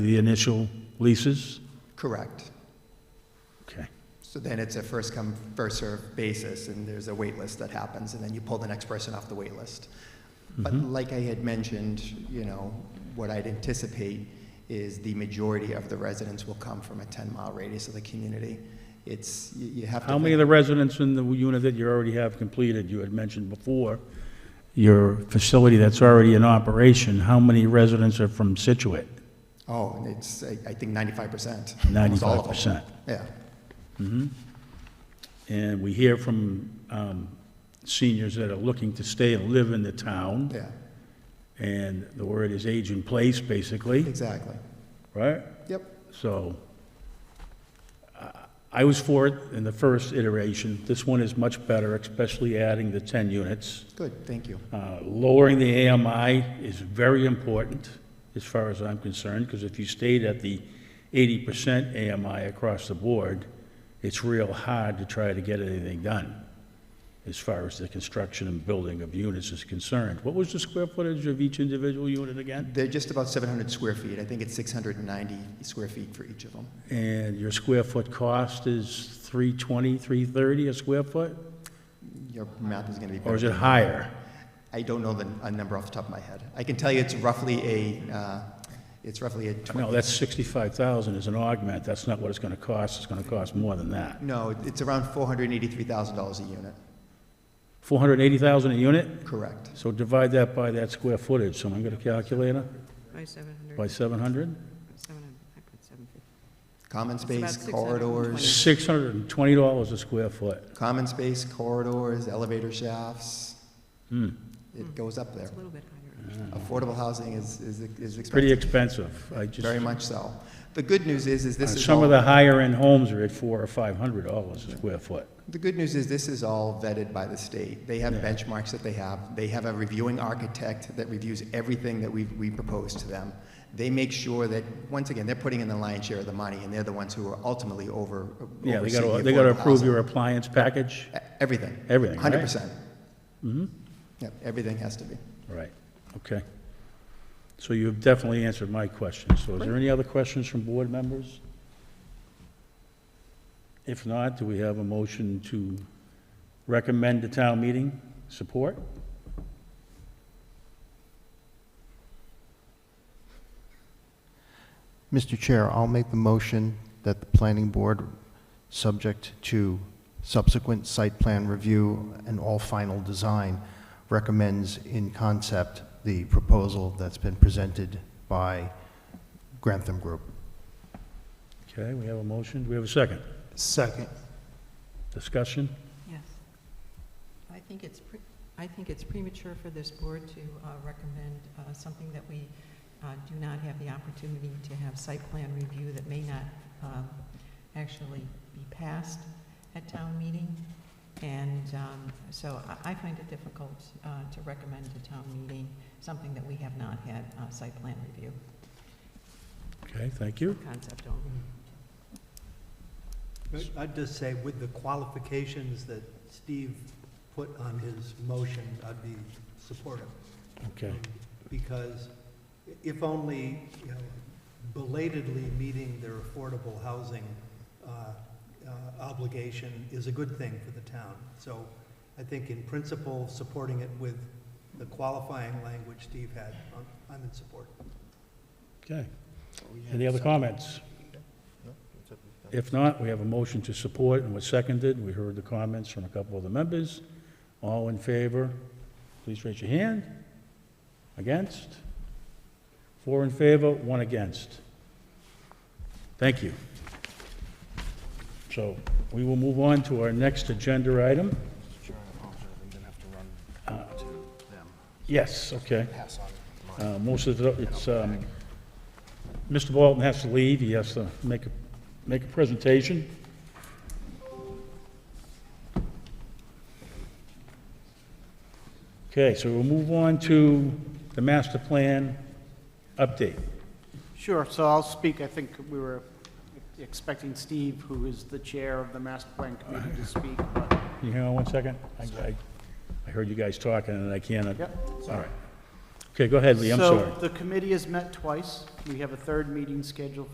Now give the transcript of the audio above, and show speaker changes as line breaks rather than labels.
the initial leases?
Correct.
Okay.
So then it's a first come, first served basis, and there's a wait list that happens, and then you pull the next person off the wait list. But
Mm-hmm.
like I had mentioned, you know, what I'd anticipate is the majority of the residents will come from a 10 mile radius of the community. It's, you, you have to.
How many of the residents in the unit that you already have completed, you had mentioned before, your facility that's already in operation, how many residents are from Situate?
think- Oh, and it's, I, I think 95%. almost all
Ninety-five
of them.
percent. Mm-hmm.
Yeah.
And we hear from um, seniors that are looking to stay and live in the town,
Yeah.
and the word is age in place, basically,
Exactly.
right?
Yep.
So I- I was for it in the first iteration. This one is much better, especially adding the 10 units.
Good. Thank you.
Uh, Lowering the AMI is very important, as far as I'm concerned, because if you stayed at the 80% AMI across the board, it's real hard to try to get anything done, as far as the construction and building of units is concerned. What was the square footage of each individual unit again?
They're just about 700 square feet. I think it's 690 square feet for each of them.
And your square foot cost is 320, 330 a square foot?
Your math is going to be better.
Or is it higher?
I don't know the a number off the top of my head. I can tell you it's roughly a, uh, it's roughly a 20.
No, that's 65,000 is an augment. That's not what it's going to cost. It's going to cost more than that.
No, it- it's around $483,000 a unit.
480,000 a unit?
Correct.
So divide that by that square footage, someone got a calculator,
By 700,
by 700?
700, I put 750.
Common
about
space,
620.
$620
corridors,
a square foot.
common space, corridors, elevator shafts.
Hmm,
It goes up there.
It's a little bit higher.
Affordable housing is, is is expensive.
pretty expensive. I just,
Very much so. The good news is, is this is
Uh, some
all-
of the higher-end homes are at 400 or $500 a square foot.
The good news is this is all vetted by the state. They have
Yeah.
benchmarks that they have. They have a reviewing architect that reviews everything that we, we propose to them. They make sure that, once again, they're putting in the lion's share of the money, and they're the ones who are ultimately over,
Yeah, they
overseeing
got to,
the
they got to
affordable
approve your
housing.
appliance package?
E- Everything.
Everything, right?
Hundred percent.
Mhm.
Yep, everything has to be.
Right, okay. So you've definitely answered my question. So is there any other questions from board members? If not, do we have a motion to recommend to town meeting support?
Mr. Chair, I'll make the motion that the planning board, subject to subsequent site plan review and all final design, recommends in concept the proposal that's been presented by Grantham Group.
Okay, we have a motion. Do we have a second?
Second.
Discussion?
Yes. I think it's, pre- I think it's premature for this board to uh, recommend uh, something that we uh, do not have the opportunity to have site plan review that may not um, actually be passed at town meeting. And um, so I- I find it difficult uh, to recommend to town meeting something that we have not had uh, site plan review,
Okay, thank you.
concept only.
I'd just say with the qualifications that Steve put on his motion, I'd be supportive.
Okay,
Because if only, you know, belatedly meeting their affordable housing uh, uh, obligation is a good thing for the town. So I think in principle, supporting it with the qualifying language Steve had, I'm- I'm in support.
okay. Any other comments? If not, we have a motion to support and was seconded. We heard the comments from a couple of the members. All in favor, please raise your hand. Against? Four in favor, one against. Thank you. So we will move on to our next agenda item. Yes, okay. Uh, Most of it, it's, um, Mr. Bolton has to leave, he has to make a, make a presentation. Okay, so we'll move on to the master plan update.
Sure, so I'll speak. I think we were expecting Steve, who is the chair of the master plan committee, to speak, but,
Can you hang on one second? I- I, I heard you guys talking and I can't.
Yep.
All right. Okay, go ahead, Lee, I'm sorry.
So the committee has met twice. We have a third meeting scheduled